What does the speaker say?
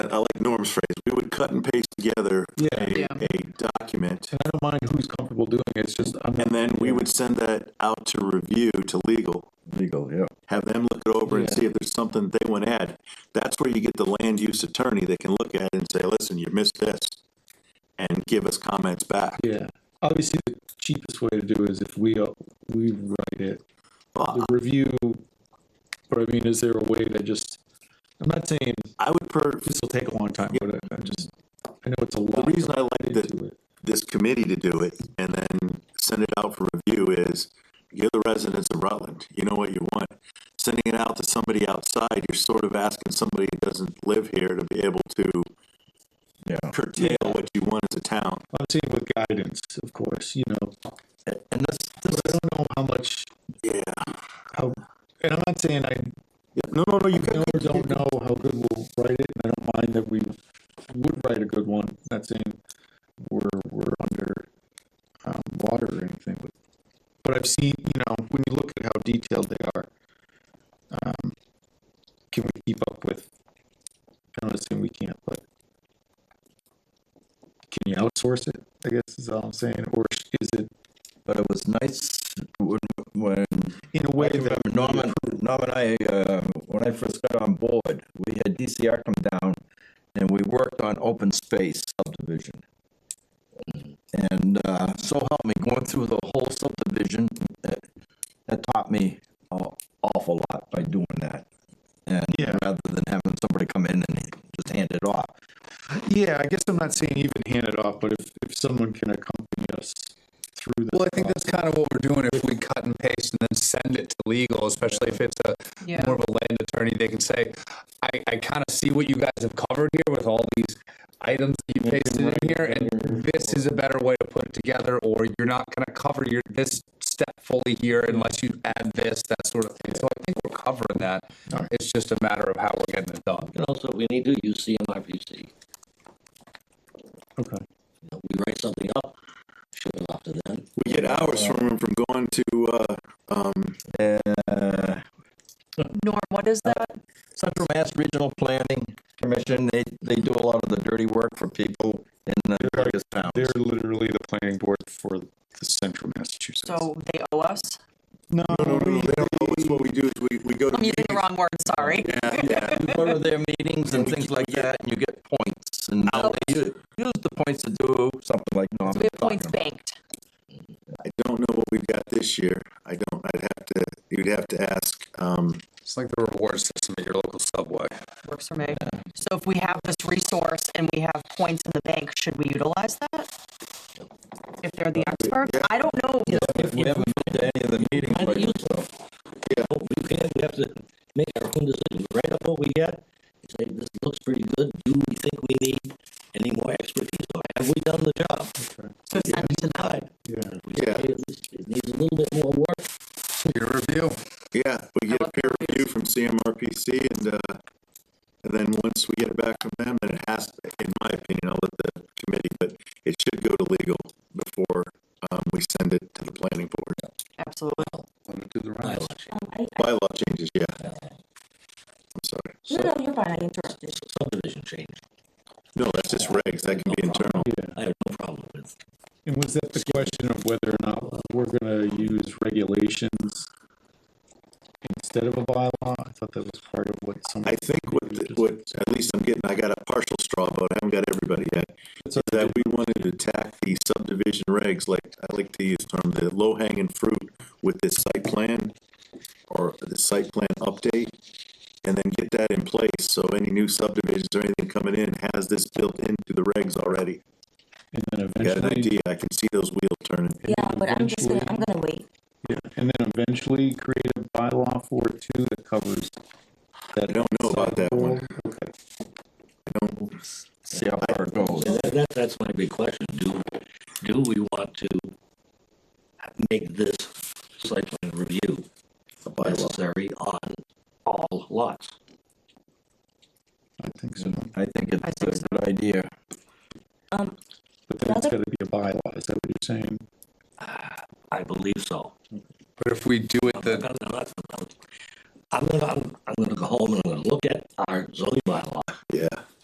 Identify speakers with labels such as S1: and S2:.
S1: I like Norm's phrase, we would cut and paste together
S2: Yeah.
S1: a,
S3: Yeah.
S1: a document,
S2: And I don't mind who's comfortable doing it, it's just, I'm not.
S1: and then we would send that out to review to legal,
S4: legal, yeah.
S1: have them look it over and
S2: Yeah.
S1: see if there's something they want to add. That's where you get the land use attorney that can look at it and say, listen, you missed this, and give us comments back.
S2: Yeah, obviously the cheapest way to do is if we, uh, we write it,
S1: Well,
S2: the review, but I mean, is there a way that just, I'm not saying
S1: I would per,
S2: this will take a long time, but I- I just, I know it's a lot.
S1: The reason I like that-
S2: into it.
S1: this committee to do it and then send it out for review is you're the residents of Rutland. You know what you want. Sending it out to somebody outside, you're sort of asking somebody who doesn't live here to be able to
S4: Yeah.
S1: curtail what you want as a town.
S2: I'm saying with guidance, of course, you know,
S4: And that's,
S2: but I don't know how much,
S1: Yeah.
S2: how, and I'm not saying I
S1: No, no, no, you can.
S2: know or don't know how good we'll write it, and I don't mind that we would write a good one, not saying we're, we're under, um, water or anything, but, but I've seen, you know, when you look at how detailed they are, um, can we keep up with, I'm not saying we can't, but can you outsource it, I guess is all I'm saying, or is it
S4: but it was nice when, when
S2: in a way that,
S4: Norman, Norm and I, uh, when I first got on board, we had DCR come down and we worked on open space subdivision. And, uh, so help me, going through the whole subdivision, that, that taught me an awful lot by doing that. And
S2: Yeah.
S4: rather than having somebody come in and just hand it off.
S2: yeah, I guess I'm not saying even hand it off, but if, if someone can accompany us through this.
S5: Well, I think that's kind of what we're doing if we cut and paste and then send it to legal, especially if it's a
S3: Yeah.
S5: more of a land attorney, they can say, I, I kind of see what you guys have covered here with all these items that you pasted in here, and this is a better way to put it together, or you're not gonna cover your, this step fully here unless you add this, that sort of thing. So I think we're covering that. It's just a matter of how we're getting it done.
S6: And also, we need to use CMRPC. You
S2: Okay.
S6: know, we write something up, ship it off to them.
S1: We get hours from them from going to, uh, um,
S4: Uh,
S3: Norm, what is that?
S4: Central Mass Regional Planning Commission, they, they do a lot of the dirty work for people in the various towns.
S2: They're literally the planning board for the central Massachusetts.
S3: So they owe us?
S2: no,
S1: no, no, no, they don't know. It's what we do is we, we go to
S3: I'm using the
S1: meetings.
S3: wrong word, sorry.
S4: Yeah, you go to their meetings and things like that, and you get points, and they u- use the points to do something like Norm.
S3: We have points banked.
S1: I don't know what we've got this year. I don't, I'd have to, you'd have to ask, um,
S5: It's like the reward system at your local subway.
S3: Works for me. So if we have this resource and we have points in the bank, should we utilize that? If they're the experts? I don't know.
S4: If we haven't been to any of the meetings,
S6: Kind
S4: but
S6: of useful. Yeah. We can't, we have to make our own decision, write up what we got, say, this looks pretty good, do we think we need any more expertise, or have we done the job?
S3: So send it to them.
S6: Time.
S2: Yeah.
S6: We say,
S1: Yeah.
S6: "Hey, this- It needs a little bit more work,
S5: Your review.
S1: Yeah, we get a peer review from CMRPC and, uh, and then once we get it back from them, then it has, in my opinion, I'll let the committee, but it should go to legal before, um, we send it to the planning board.
S3: Absolutely.
S1: Bylaw changes, yeah. I'm sorry.
S7: No, no, you're fine. I interrupted.
S6: subdivision change,
S1: No, that's just regs. That can be internal.
S6: I have no problem with.
S2: And was that the question of whether or not we're gonna use regulations instead of a bylaw? I thought that was part of what some.
S1: I think what, the- what, at least I'm getting, I got a partial straw vote. I haven't got everybody yet.
S2: That's
S1: So that we wanted to attack the subdivision regs, like, I like to use the term, the low hanging fruit with this site plan or the site plan update, and then get that in place, so any new subdivisions or anything coming in has this built into the regs already.
S2: And then
S1: I Got an
S2: eventually,
S1: idea, I can see those wheels turning.
S7: Yeah, but I'm just gonna, I'm gonna wait.
S2: yeah, and then eventually create a bylaw for it too that covers.
S1: I don't know about that one.
S2: Okay.
S4: see how far it goes.
S6: And that, that- that's my big question, do, do we want to make this site plan review necessary on all lots?
S2: I think so.
S4: I think
S3: I
S4: it's a
S3: think so.
S4: good idea.
S7: Um,
S2: But then it's
S7: Another-
S2: gotta be a bylaw, is that what you're saying?
S6: I believe so.
S5: But if we do